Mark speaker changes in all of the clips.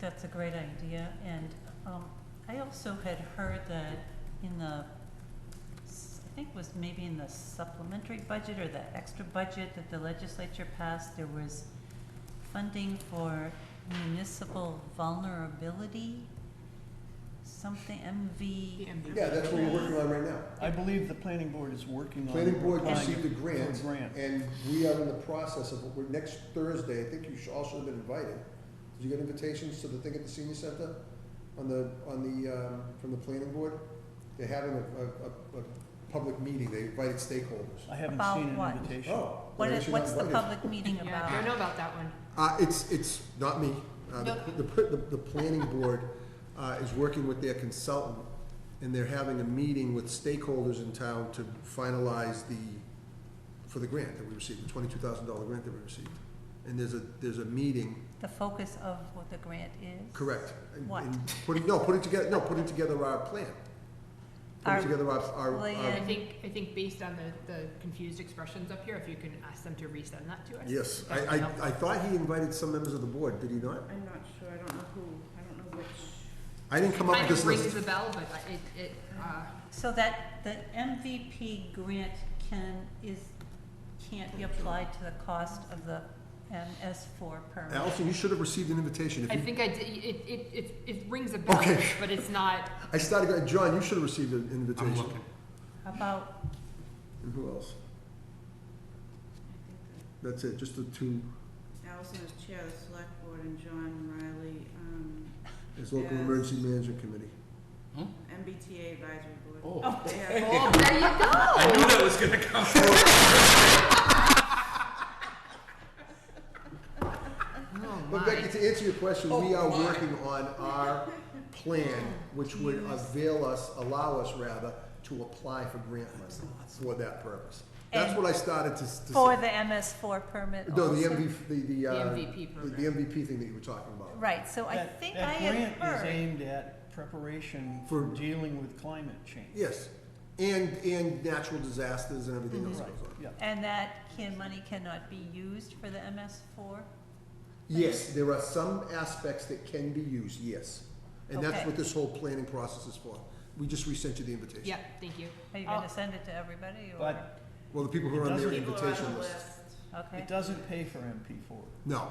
Speaker 1: that's a great idea, and um, I also had heard that in the, s- I think it was maybe in the supplementary budget or the extra budget that the legislature passed, there was funding for municipal vulnerability, something, MV.
Speaker 2: Yeah, that's what we're working on right now.
Speaker 3: I believe the planning board is working on.
Speaker 2: Planning board
Speaker 3: applying
Speaker 2: received a
Speaker 3: for
Speaker 2: grant,
Speaker 3: grant.
Speaker 2: and we are in the process of, we're, next Thursday, I think you should, all should have been invited. Did you get invitations to the thing at the senior center on the, on the, um, from the planning board? They're having a, a, a, a public meeting, they invited stakeholders.
Speaker 3: I haven't
Speaker 1: About
Speaker 3: seen
Speaker 1: what?
Speaker 3: an invitation.
Speaker 2: Oh.
Speaker 1: What
Speaker 2: then
Speaker 1: is,
Speaker 2: you're not
Speaker 1: what's the
Speaker 2: invited.
Speaker 1: public meeting
Speaker 4: Yeah, I
Speaker 1: about?
Speaker 4: don't know about that one.
Speaker 2: Uh, it's, it's not me. Uh, the,
Speaker 4: No.
Speaker 2: the, the, the planning board, uh, is working with their consultant, and they're having a meeting with stakeholders in town to finalize the, for the grant that we received, the twenty-two thousand dollar grant that we received. And there's a, there's a meeting,
Speaker 1: The focus of what the grant is?
Speaker 2: correct. and-
Speaker 1: What?
Speaker 2: and Putting, no, putting together, no, putting together our plan.
Speaker 1: Our
Speaker 2: Putting together our,
Speaker 4: I
Speaker 2: our, our,
Speaker 1: plan.
Speaker 4: think, I think based on the, the confused expressions up here, if you can ask them to resend that to us.
Speaker 2: yes,
Speaker 4: that would
Speaker 2: I, I,
Speaker 4: help.
Speaker 2: I thought he invited some members of the board, did he not?
Speaker 5: I'm not sure, I don't know who, I don't know which.
Speaker 2: I didn't come up with
Speaker 4: Kind
Speaker 2: this
Speaker 4: of rings
Speaker 2: list.
Speaker 4: the bell, but I- it, it, uh,
Speaker 1: So that, the MVP grant can, is, can't be applied to the cost of the MS four permit?
Speaker 2: Allison, you should have received an invitation. If
Speaker 4: I
Speaker 2: you
Speaker 4: think I, did- it, it, it, it rings a bell,
Speaker 2: Okay.
Speaker 4: but it's not,
Speaker 2: I started, going, John, you should have received an invitation.
Speaker 1: About,
Speaker 2: And who else? That's it, just the two,
Speaker 5: Allison is chair of the select board and John Riley, um,
Speaker 2: as local
Speaker 5: Yes.
Speaker 2: emergency management committee.
Speaker 5: MBTA advisory board.
Speaker 6: Oh.
Speaker 5: They have-
Speaker 4: oh, there you go.
Speaker 6: I knew that was gonna come.
Speaker 2: But Becky, to answer your question, we are working on our plan, which would avail us, allow us rather, to apply for grant money for that purpose. That's
Speaker 1: And
Speaker 2: what I started to, s- to
Speaker 1: for
Speaker 2: say.
Speaker 1: the MS four permit
Speaker 2: No, the
Speaker 1: also?
Speaker 2: MV, the, the,
Speaker 4: The
Speaker 2: uh,
Speaker 4: MVP
Speaker 2: the-
Speaker 4: program.
Speaker 2: the MVP thing that you were talking about.
Speaker 1: Right, so I
Speaker 3: That-
Speaker 1: think I had
Speaker 3: That grant is
Speaker 1: heard,
Speaker 3: aimed at preparation
Speaker 2: For-
Speaker 3: for dealing with climate change.
Speaker 2: Yes, and, and natural disasters and everything else
Speaker 3: Mm-hmm. Right,
Speaker 2: goes on.
Speaker 3: yeah.
Speaker 1: and that can, money cannot be used for the MS four?
Speaker 2: Yes, there are some aspects that can be used, yes. And that's
Speaker 1: Okay.
Speaker 2: what this whole planning process is for. We just resent you the invitation.
Speaker 4: Yeah, thank you.
Speaker 1: Are you
Speaker 4: Oh.
Speaker 1: gonna send it to everybody, or?
Speaker 3: But
Speaker 2: Well, the people who
Speaker 3: It
Speaker 2: are on their
Speaker 3: doesn't-
Speaker 5: People are on
Speaker 2: invitation
Speaker 5: the
Speaker 2: list.
Speaker 5: list.
Speaker 1: Okay,
Speaker 3: it doesn't pay for MP four.
Speaker 2: No,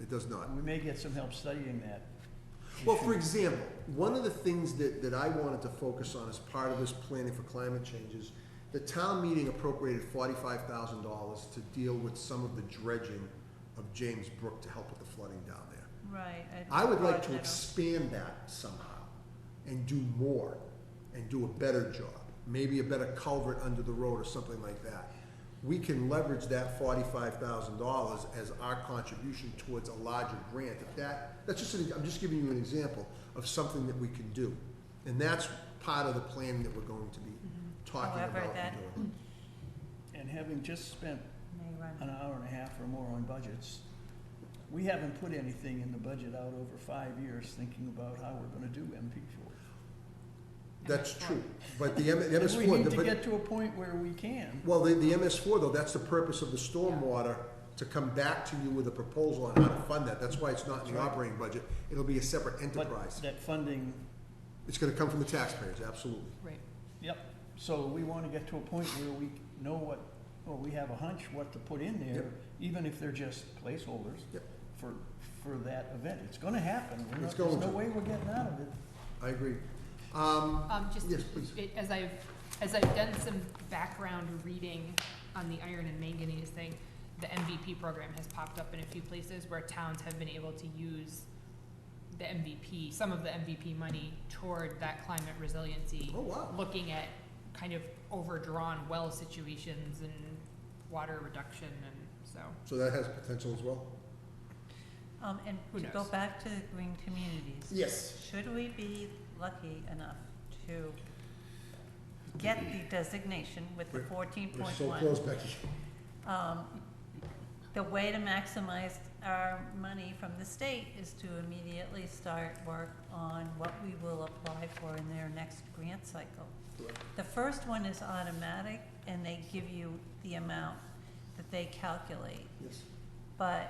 Speaker 2: it does not.
Speaker 3: We may get some help studying that.
Speaker 2: Well, for example, one of the things that, that I wanted to focus on as part of this planning for climate change is the town meeting appropriated forty-five thousand dollars to deal with some of the dredging of James Brook to help with the flooding down there.
Speaker 1: right.
Speaker 2: I would like to
Speaker 1: broaden it out.
Speaker 2: expand that somehow and do more and do a better job, maybe a better culvert under the road or something like that. We can leverage that forty-five thousand dollars as our contribution towards a larger grant. If that, that's just, an- I'm just giving you an example of something that we can do. And that's part of the plan that we're going to be talking
Speaker 1: However,
Speaker 2: about and
Speaker 1: that-
Speaker 2: doing.
Speaker 3: And having just spent
Speaker 1: May run.
Speaker 3: an hour and a half or more on budgets, we haven't put anything in the budget out over five years thinking about how we're gonna do MP four.
Speaker 2: That's true, but the M- MS four.
Speaker 3: We need to get to a point where we can.
Speaker 2: Well, the, the MS four though, that's the purpose of the stormwater, to come back to you with a proposal on how to fund that, that's why it's not in the operating budget, it'll be a separate
Speaker 3: But
Speaker 2: enterprise.
Speaker 3: that funding,
Speaker 2: It's gonna come from the taxpayers, absolutely.
Speaker 4: Right.
Speaker 3: yep, so we wanna get to a point where we know what, or we have a hunch what to put in there,
Speaker 2: Yep.
Speaker 3: even if they're just placeholders
Speaker 2: Yep.
Speaker 3: for, for that event. It's gonna happen. We're
Speaker 2: It's
Speaker 3: not- There's
Speaker 2: going
Speaker 3: no
Speaker 2: to.
Speaker 3: way we're getting out of it.
Speaker 2: I agree. Um,
Speaker 4: Um, just,
Speaker 2: Yes, please.
Speaker 4: it- as I've, as I've done some background reading on the iron and manganese thing, the MVP program has popped up in a few places where towns have been able to use the MVP, some of the MVP money toward that climate resiliency,
Speaker 2: oh wow,
Speaker 4: looking at kind of overdrawn well situations and water reduction and so.
Speaker 2: so that has potential as well?
Speaker 1: Um, and
Speaker 4: Who
Speaker 1: to go
Speaker 4: knows?
Speaker 1: back to the green communities.
Speaker 2: Yes.
Speaker 1: Should we be lucky enough to get the designation with the
Speaker 2: We're-
Speaker 1: fourteen
Speaker 2: We're
Speaker 1: point
Speaker 2: so
Speaker 1: one? Um,
Speaker 2: close, Becky.
Speaker 1: The way to maximize our money from the state is to immediately start work on what we will apply for in their next grant cycle. The first one is automatic, and they give you the amount that they calculate.
Speaker 2: Yes.
Speaker 1: But